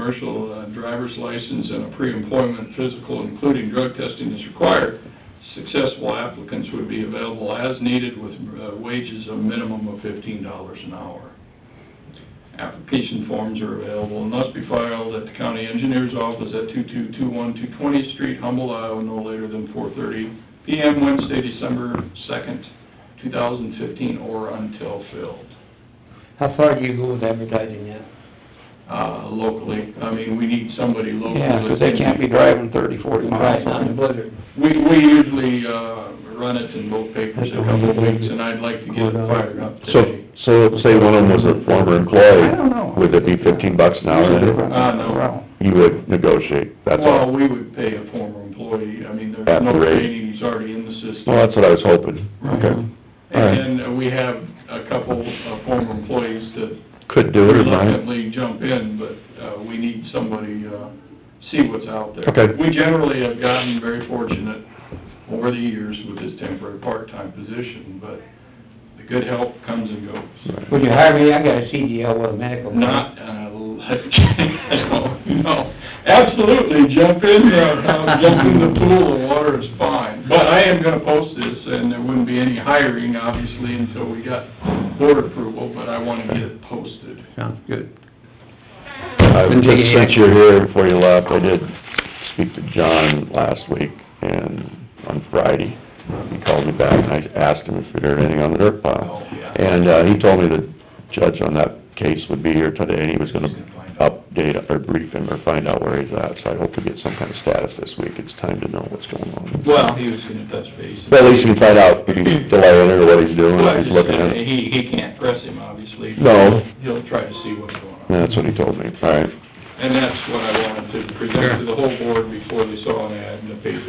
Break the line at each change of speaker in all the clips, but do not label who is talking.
commercial uh, driver's license and a pre-employment physical, including drug testing is required, successful applicants would be available as needed with uh, wages of minimum of fifteen dollars an hour. Application forms are available and must be filed at the county engineer's office at 2221 220th Street, Humble, Iowa, no later than four thirty PM Wednesday, December second, two thousand fifteen, or until filled.
How far do you go with advertising yet?
Uh, locally, I mean, we need somebody locally.
Yeah, 'cause they can't be driving thirty, forty miles
Not in
on
a
it.
blizzard.
We, we usually, uh, run it in both papers a couple of weeks, and I'd like to get it fired up
So,
today.
so let's say one of them was a former
I don't know.
employee, would it be fifteen bucks an hour then?
Uh, no.
You would negotiate, that's
Well,
all.
we would pay a former employee, I mean, there's
At
no
the rate.
training, he's already in the system.
Well, that's what I was hoping.
Okay.
All right.
And then uh, we have a couple of former employees that
Could do it or not.
reluctantly jump in, but, uh, we need somebody, uh, see what's out there.
Okay.
We generally have gotten very fortunate over the years with this temporary part-time position, but the good help comes and goes.
Would you hire me? I got a CDL with a medical.
Not, uh, I don't know. Absolutely, jump in, uh, jump in the pool, the water is fine. But I am gonna post this, and there wouldn't be any hiring, obviously, until we got board approval, but I wanna get it posted.
Sounds good.
I
Didn't take any
Since
action.
you're here before you left, I did speak to John last week and on Friday. He called me back and I asked him if he'd heard anything on the dirt pile.
Oh, yeah.
And, uh, he told me the judge on that case would be here today and he was gonna update or brief him or find out where he's at. So I hope we get some kind of status this week. It's time to know what's going on.
Well, he was gonna touch base.
But at least we can find out if he's delaying it or what he's doing,
Well,
if
I
he's
just-
looking at it.
He, he can't press him, obviously.
No.
He'll try to see what's going on.
That's what he told me, all right.
And that's what I wanted to present to the whole board before they saw an ad in the paper.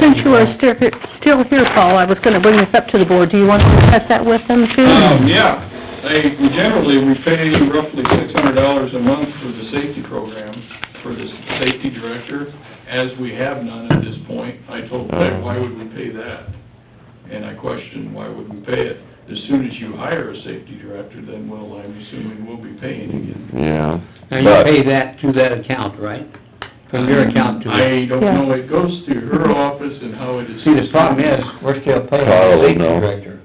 Since you are still here- still here, Paul, I was gonna bring this up to the board. Do you want to discuss that with them too?
Um, yeah, they, we generally, we pay roughly six hundred dollars a month for the safety program, for the safety director, as we have none at this point. I told Peg, why would we pay that? And I questioned, why would we pay it? As soon as you hire a safety director, then we'll, I'm assuming we'll be paying again.
Yeah.
Now, you pay that to that account, right? From your account to.
I don't
Yeah.
know, it goes to her office and how it is.
See, the problem is, we're still paying
Carl
the
will
safety
know.
director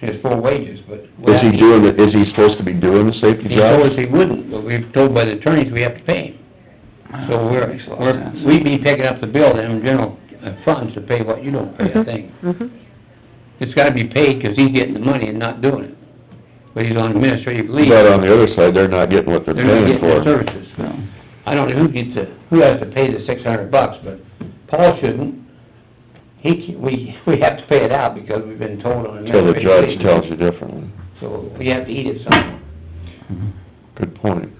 his full wages, but.
But is he doing, the- is he supposed to be doing the safety
He
job?
told us he wouldn't, but we've told by the attorneys we have to pay him. So we're,
Makes a lot of
we're,
sense.
we'd be picking up the bill then in general uh, funds to pay what you don't pay, I
Mhm,
think.
mhm.
It's gotta be paid, 'cause he's getting the money and not doing it. But he's on administrative leave.
But on the other side, they're not getting what they're
They're not
paying
getting their
for.
services.
So,
I don't know who gets the, who has to pay the six hundred bucks, but Paul shouldn't. He, c- we, we have to pay it out because we've been told on
Till the
administrative leave.
judge tells you differently.
So we have to eat it somehow.
Good point.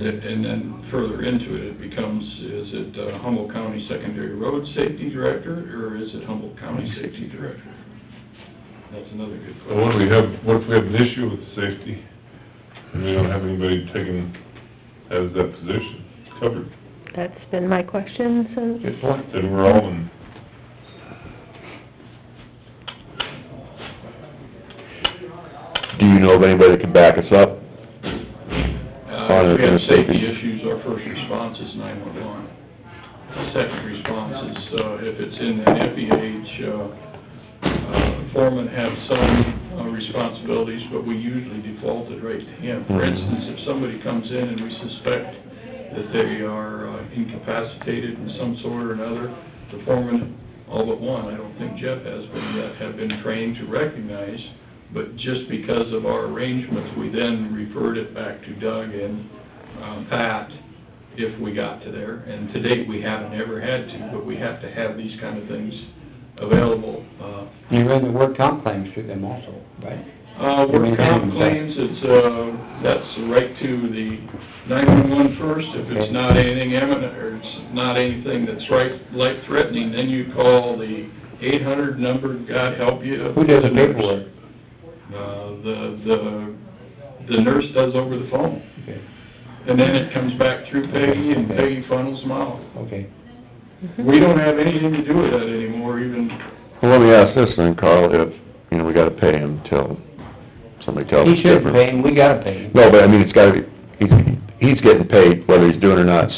And then further into it, it becomes, is it uh, Humboldt County Secondary Road Safety Director, or is it Humboldt County Safety Director? That's another good
Well, what do we
question.
have, what if we have an issue with safety, and we don't have anybody taking, as that position covered,
That's been my question since,
Good point.
then we're all in,
Do you know of anybody that can back us up?
Uh, if we have safety issues, our first response is nine-one-one. Second response is, uh, if it's in an FEH, uh, uh, foremen have some uh, responsibilities, but we usually default it right to him.
Mm-hmm.
For instance, if somebody comes in and we suspect that they are uh, incapacitated in some sort or another, the foreman, all but one, I don't think Jeff has been yet, have been trained to recognize, but just because of our arrangements, we then referred it back to Doug and um, Pat if we got to there. And to date, we haven't ever had to, but we have to have these kind of things available. Uh,
You run the work comp claims through them also, right?
uh, work comp claims, it's, uh, that's right to the nine-one-one first, if it's not anything imminent, or it's not anything that's right, life-threatening, then you call the eight-hundred number, God help you.
Who does the paperwork?
Uh, the, the, the nurse does over the phone,
Okay,
and then it comes back through Peggy, and Peggy funnels them out.
okay.
We don't have anything to do with that anymore, even,
Well, let me ask this then, Carl, if, you know, we gotta pay him till somebody tells us
He shouldn't
different.
pay him, we gotta pay him.
No, but I mean, it's gotta be, he's, he's getting paid whether he's doing it or not,